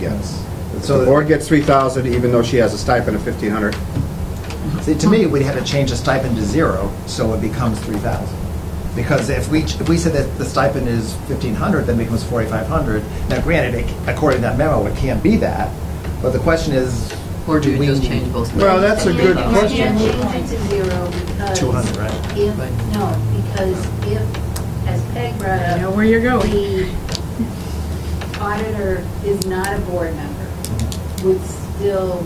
gets. So So the- the board gets 3,000 even though she has a stipend of 1,500. See, to me, we'd have to change the stipend to zero, so it becomes three thousand. Because if we, if we said that the stipend is fifteen hundred, then it becomes forty-five hundred. Now granted, it- according to that memo, it can't be that, but the question is. Or do we just need change both? Well, that's a good You question. can't change it to zero because. Two hundred, right? If, Right. no, because if, as Peg brought up. I know where you're going. The auditor is not a board member, would still,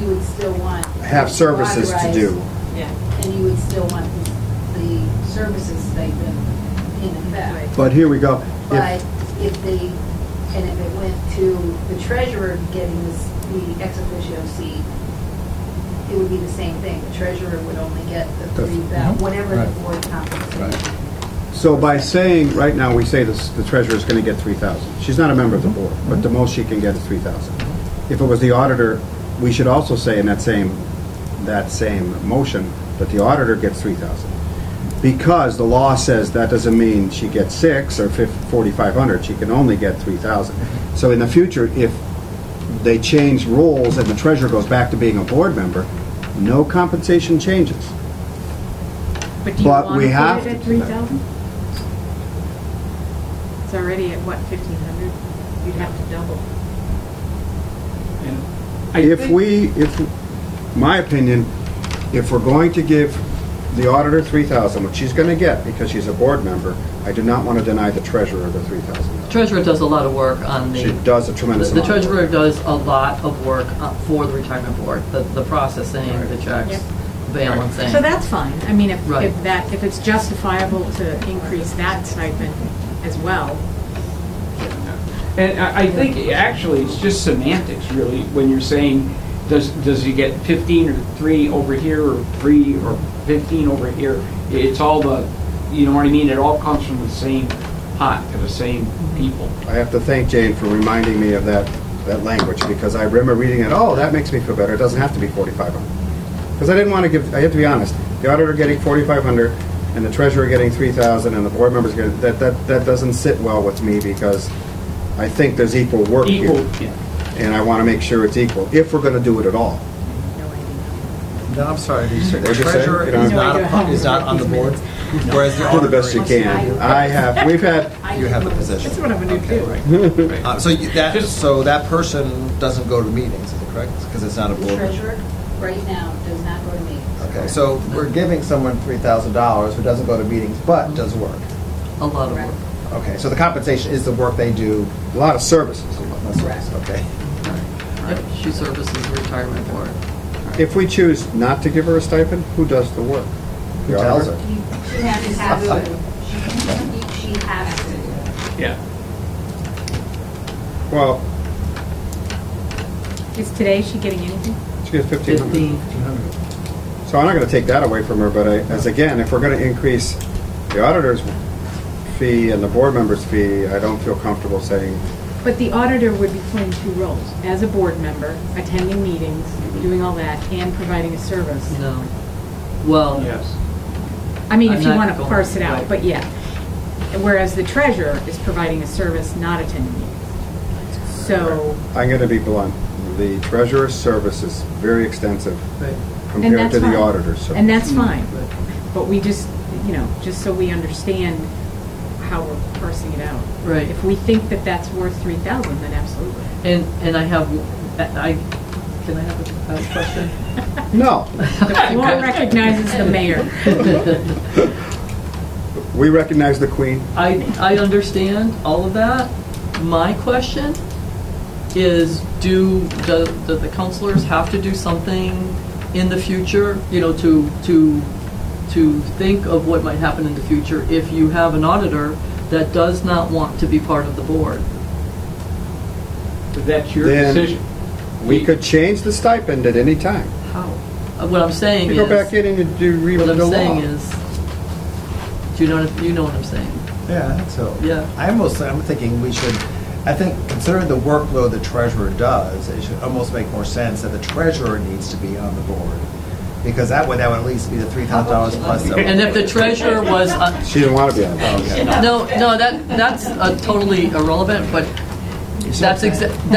you would still want. Have services to do. authorized, And you would still want the- the services stipend in effect. But here we go. If- But if the, and if it went to the treasurer getting this, the ex officio seat, it would be the same thing. The treasurer would only get the The- three, thou- whatever the Right. board compensates. So by saying, right now, we say this- the treasurer's going to get 3,000. She's not a member of the board, but the most she can get is 3,000. If it was the auditor, we should also say in that same, that same motion, that the auditor gets 3,000. Because the law says that doesn't mean she gets six or fif- 4,500, she can only get 3,000. So in the future, if they change roles and the treasurer goes back to being a board member, no compensation changes. But do you But want we to have put to it at do three that. thousand? It's already at what, fifteen hundred? You'd have to double. And I If think- we, if, my opinion, if we're going to give the auditor three thousand, which she's gonna get because she's a board member, I do not wanna deny the treasurer the three thousand. Treasurer does a lot of work on the. She does a tremendous The the amount. of work. treasurer does a lot of work uh, for the retirement board, the, the processing, the checks, balancing. So that's fine. I mean, if, Right. if that, if it's justifiable to increase that stipend as well. And I I think actually, it's just semantics, really, when you're saying, does, does he get 15 or 3 over here, or 3 or 15 over here? It's all the, you know what I mean? It all comes from the same pot, to the same people. I have to thank Jane for reminding me of that, that language, because I remember reading it, oh, that makes me feel better, it doesn't have to be forty-five hundred. Because I didn't wanna give, I have to be honest, the auditor getting forty-five hundred, and the treasurer getting three thousand, and the board members getting, that, that, that doesn't sit well with me, because I think there's equal work here. Equal, yeah. and I want to make sure it's equal, if we're going to do it at all. No, I'm sorry, the the What'd you say? treasurer You don't is have- not, a- is not on the board, whereas the Do the auditor best you is. can. I have, we've had, You have the position. That's what I'm gonna do. Uh, So you- that, so that person doesn't go to meetings, is it correct? Because it's not a The board. treasurer, right now, does not go to meetings. Okay, so we're giving someone three thousand dollars who doesn't go to meetings but does work. A lot of work. Okay, so the compensation is the work they do. a lot of services. That's right, Okay. Yep, She services the retirement board. If we choose not to give her a stipend, who does the work? Who The tells auditor? her? You- She has to have, she- she has to. Yeah. Well, Is today she getting anything? she gets 1,500. Fifteen, So I'm not going to take that away from her, but I, as again, if we're going to increase the auditor's fee and the board member's fee, I don't feel comfortable saying, But the auditor would be playing two roles, as a board member, attending meetings, doing all that, and providing a service. no. Well, Yes. I mean, I'm if you not want to going- parse it out, right. but yeah. Whereas the treasurer is providing a service, not attending meetings. So, I'm going to be blunt. The treasurer's service is very extensive right. and compared that's to fine. the auditor's service. And that's fine, But- but we just, you know, just so we understand how we're parsing it out. Right. If we think that that's worth three thousand, then absolutely. And, and I have, I, can I have a- a question? No, The one recognizes the mayor. we recognize the queen. I, I understand all of that. My question is, do, do do the counselors have to do something in the future, you know, to, to, to think of what might happen in the future if you have an auditor that does not want to be part of the board? But that's your Then- decision. We could change the stipend at any time. How? Uh, What I'm saying You go is. back in and you do read What the I'm law. saying is, do you know, what- you know what I'm saying? Yeah, I think so. Yeah. I almost, I'm thinking we should, I think considering the workload the treasurer does, it should almost make more sense that the treasurer needs to be on the board. Because that way, that would at least be the three thousand dollars plus. the- And if the treasurer was, uh, She didn't want to be on the board. No, no, that, that's uh, totally irrelevant, but That's exactly.